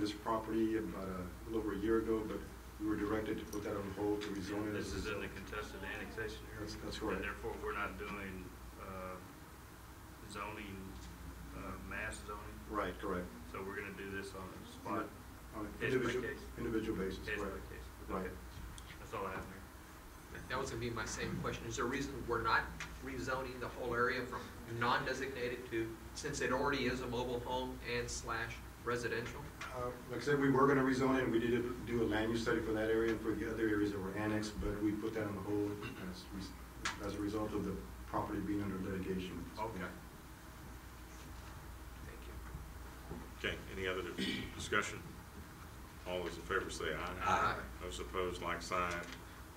this property about a little over a year ago, but we were directed to put that on hold to rezone it. This is in the contested annexation area. That's- that's correct. And therefore, we're not doing uh, zoning, uh, mass zoning, Right, correct. so we're gonna do this on the spot, On an Case by individual- case. Individual basis, case by right. case. Right. Okay. That's all I have here. That was gonna be my same question. Is there a reason we're not rezoning the whole area from non-designated to, since it already is a mobile home and slash residential? Uh, Like I said, we were gonna rezone it, and we did do a land use study for that area and for the other areas that were annexed, but we put that on hold as, re- as a result of the property being under litigation. Thank you. Okay, any other discussion? All those in favor say aye. Aye. Those opposed, like sign.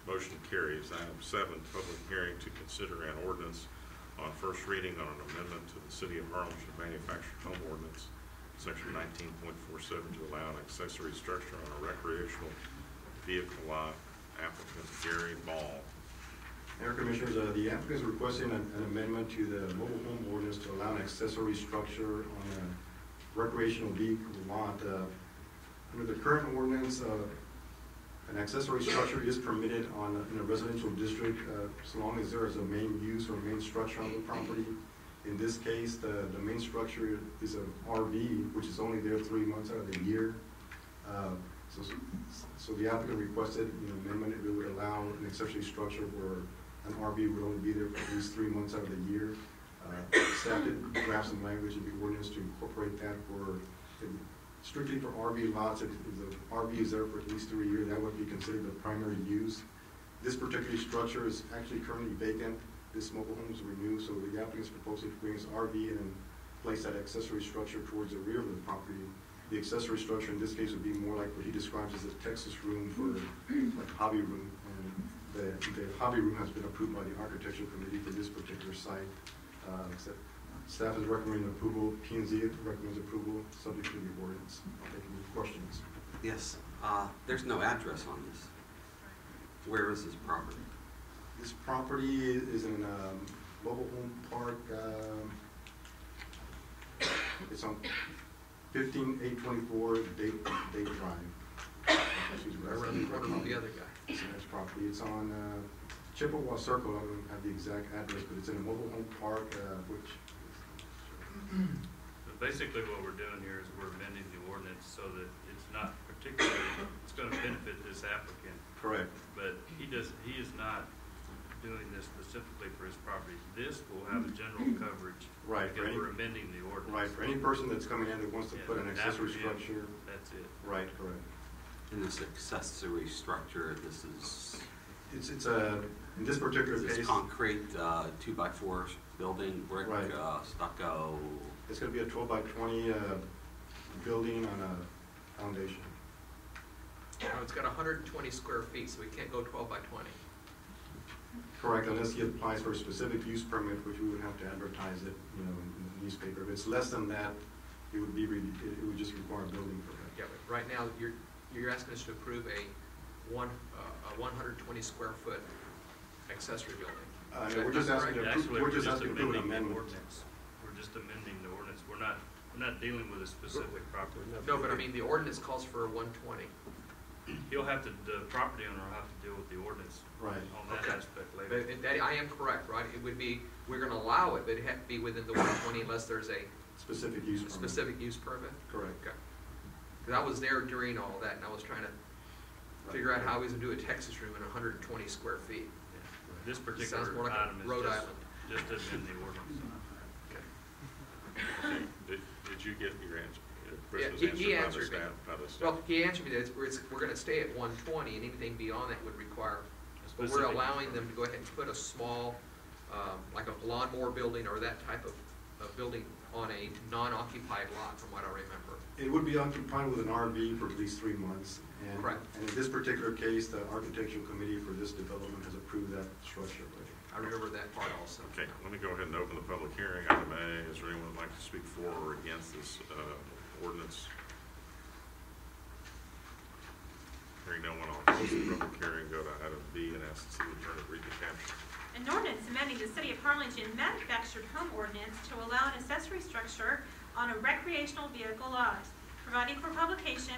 Motion carries. Item seven, public hearing to consider an ordinance on first reading on an amendment to the City of Harlingen Manufactured Home Ordinance, Section nineteen point four seven, to allow an accessory structure on a recreational vehicle lot. Applicant Gary Ball. Mayor Commissioners, uh, the applicant is requesting an an amendment to the mobile home ordinance to allow an accessory structure on a recreational vehicle lot. Uh, Under the current ordinance, uh, an accessory structure is permitted on, in a residential district, uh, so long as there is a main use or main structure on the property. In this case, the, the main structure is an RV, which is only there three months out of the year. Uh, So, so the applicant requested, you know, amendment, it would allow an accessory structure where an RV would only be there for at least three months out of the year. Uh, Staff did draft some language in the ordinance to incorporate that for, strictly for RV lots, if if the RV is there for at least three years, that would be considered the primary use. This particular structure is actually currently vacant, this mobile home is renewed, so the applicant is proposing to bring his RV and then place that accessory structure towards the rear of the property. The accessory structure in this case would be more like what he describes as a Texas room for like hobby room. And the, the hobby room has been approved by the architectural committee for this particular site. Uh, except Staff is recommending approval, P and Z recommends approval, subject to the ordinance. I'll take any questions. Yes, uh, there's no address on this. Where is this property? This property is in, um, mobile home park, um, it's on fifteen eight twenty-four Date, Date Drive. Excuse me, Right that's around the corner from the other guy. It's a nice property. It's on uh, Chippewa Circle. I don't have the exact address, but it's in a mobile home park, uh, which, But Basically, what we're doing here is we're amending the ordinance so that it's not particularly, it's gonna benefit this applicant, correct, but he does, he is not doing this specifically for his property. This will have a general coverage. Right, Because right. we're amending the ordinance. right, for any person that's coming in that wants to put an Yeah, accessory after him. structure, That's it. right, correct. In this accessory structure, this is, It's, it's a, in this particular this case, concrete, uh, two-by-four building, brick, Right. uh, stucco. it's gonna be a twelve by twenty uh, building on a foundation. Now, it's got hundred and twenty square feet, so we can't go twelve by twenty. Correct, unless he applies for a specific use permit, which we would have to advertise it, you know, in the newspaper. If it's less than that, it would be, re- it it would just require a building permit. Yeah, but right now, you're, you're asking us to approve a one, uh, a one hundred and twenty square foot accessory building. Uh, no, we're just asking to approve, Actually, we're just asking to approve an amending the amendment. ordinance. We're just amending the ordinance. We're not, we're not dealing with a specific property. No, but I mean, the ordinance calls for a one twenty. He'll have to, the property owner will have to deal with the ordinance Right. on that Okay. aspect But later. it- that, I am correct, right? It would be, we're gonna allow it, but it had to be within the one twenty unless there's a Specific use permit. specific use permit? Correct. Okay. 'Cause I was there during all that, and I was trying to figure out how we would do a Texas room in hundred and twenty square feet. Yeah. This Sounds more particular like a item is Rhode just, Island. just to amend the ordinance. Okay. Did, did you get your answer? Yeah, Chris he- was he answered by the answered me. staff- By the staff? Well, he answered me that it's, we're, it's- we're gonna stay at one twenty, and anything beyond that would require, but we're Specific use allowing them permit. to go ahead and put a small, um, like a lawnmower building or that type of, of building on a non-occupied lot, from what I remember. It would be occupied with an RV for at least three months. and- Correct. And in this particular case, the architectural committee for this development has approved that structure. I remember that part also. Okay, let me go ahead and open the public hearing. Item A, is there anyone who'd like to speak for or against this uh, ordinance? Hearing no one, I'll close the public hearing, go to item B and ask the city attorney to read the caption. An ordinance amending the City of Harlingen manufactured home ordinance to allow an accessory structure on a recreational vehicle lot, providing for publication